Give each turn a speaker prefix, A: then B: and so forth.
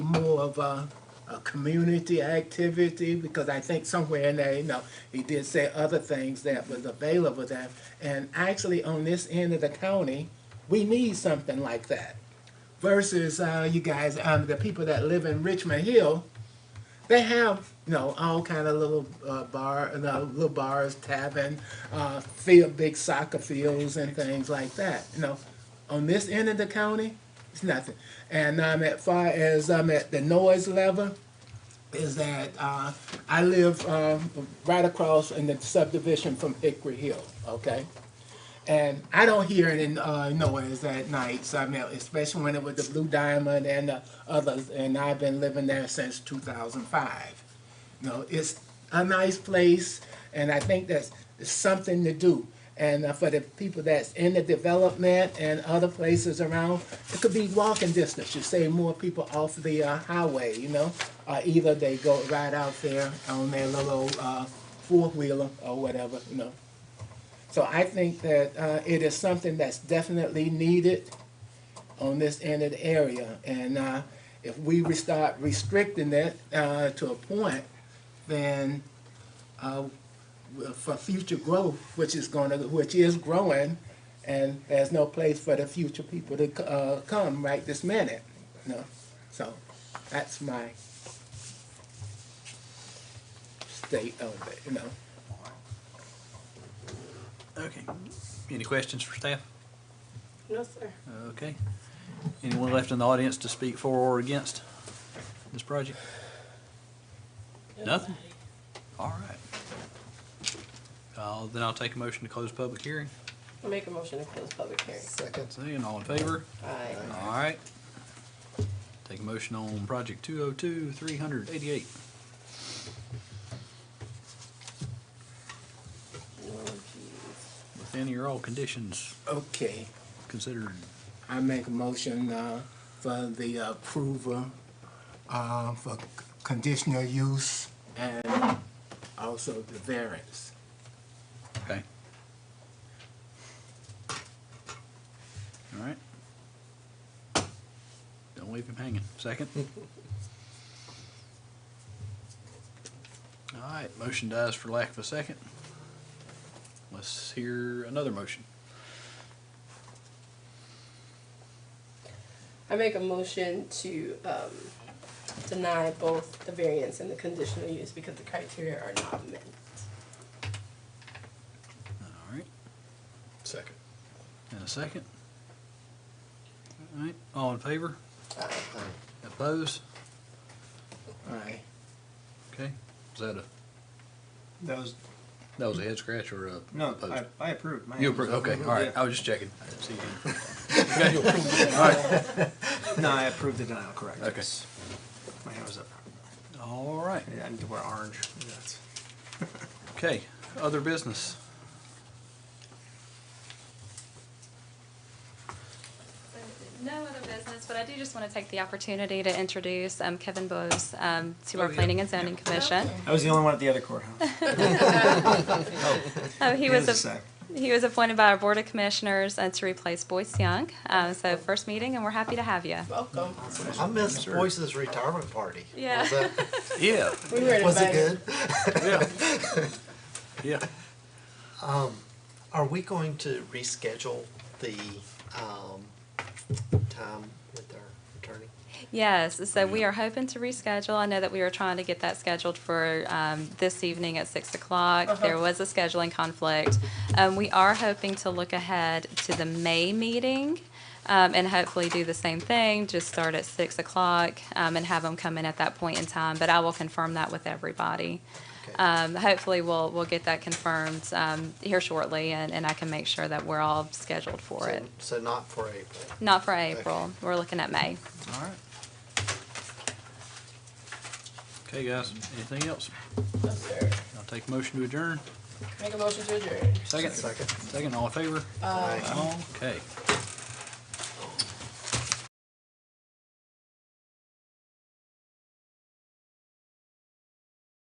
A: more of a, a community activity? Because I think somewhere in there, you know, he did say other things that was available there. And actually, on this end of the county, we need something like that. Versus, uh, you guys, um, the people that live in Richmond Hill, they have you know all kind of little uh, bar, uh, little bars, tavern, uh, field, big soccer fields, and things like that. You know, on this end of the county, it's nothing. And um, as far as um, at the noise level, is that uh, I live um, right across in the subdivision from Hickory Hill. Okay. And I don't hear it in uh, noise at night, so I mean, especially when it was the Blue Diamond and the others, and I've been living there since 2005. You know, it's a nice place, and I think that's something to do. And uh, for the people that's in the development and other places around, it could be walking distance. You save more people off the uh, highway, you know, or either they go right out there on their little uh, four wheeler or whatever, you know. So I think that uh, it is something that's definitely needed on this end of the area. And uh, if we re- start restricting it uh, to a point, then uh, w- for future growth, which is going to, which is growing, and there's no place for the future people to c- uh, come right this minute. You know? So that's my state of it. You know.
B: Okay. Any questions for staff?
C: No, sir.
B: Okay. Anyone left in the audience to speak for or against this project? Nothing? All right. Uh, Then I'll take a motion to close public hearing.
C: I make a motion to close public hearing.
B: Seeing all in favor?
C: Aye.
B: All right. Take a motion on project 202, 388.
C: Oh, jeez.
B: With any or all conditions
A: Okay.
B: considered.
A: I make a motion uh, for the approval uh, for c- conditional use and also the variance.
B: Okay. All right. Don't leave him hanging. Second. All right, motion dies for lack of a second. Let's hear another motion.
C: I make a motion to um, deny both the variance and the conditional use because the criteria are not met.
B: All right,
D: Second.
B: and a second. All right, all in favor?
C: Aye.
B: Opposed?
A: Aye.
B: Okay, is that a,
E: That was,
B: that was a head scratch or a?
E: no,
B: opposed?
E: I, I approved. My
B: You
E: hand was
B: approve,
E: up.
B: okay, all right,
E: Yeah.
B: I was just checking. I didn't see you. Okay, All right,
E: No, I approved the denial, correct.
B: Okay.
E: yes. My hand was up.
B: All right,
E: Yeah, I need to wear orange. That's-
B: okay, other business.
F: No other business, but I do just want to take the opportunity to introduce um, Kevin Bowes um, to
B: Oh,
F: our
B: yeah.
F: Planning and Zoning Commission.
E: I was the only one at the other courthouse.
F: Uh, He
E: It
F: was,
E: a
F: a-
E: sec.
F: he was appointed by our Board of Commissioners uh, to replace Boyce Young. Uh,
B: Oh.
F: So first meeting, and we're happy to have you.
C: Welcome.
D: I missed Boyce's retirement party.
F: Yeah.
D: Was, that,
B: Yeah,
C: We were
D: was it
C: invited.
D: good?
B: yeah. Yeah,
D: Are we going to reschedule the um, time with our attorney?
F: Yes, so we are hoping to reschedule. I know that we were trying to get that scheduled for um, this evening at six o'clock.
D: Uh-huh.
F: There was a scheduling conflict. Um, We are hoping to look ahead to the May meeting um, and hopefully do the same thing, just start at six o'clock um, and have them come in at that point in time. But I will confirm that with everybody.
D: Okay.
F: Um, Hopefully, we'll, we'll get that confirmed um, here shortly, and and I can make sure that we're all scheduled for
D: so,
F: it.
D: so not for April.
F: Not for April, we're looking at May.
B: all right. Okay, guys, anything else?
C: No, sir.
B: I'll take a motion to adjourn.
C: Make a motion to adjourn.
B: Second?
D: Second.
B: Second, all in favor?
D: Aye.
B: Okay.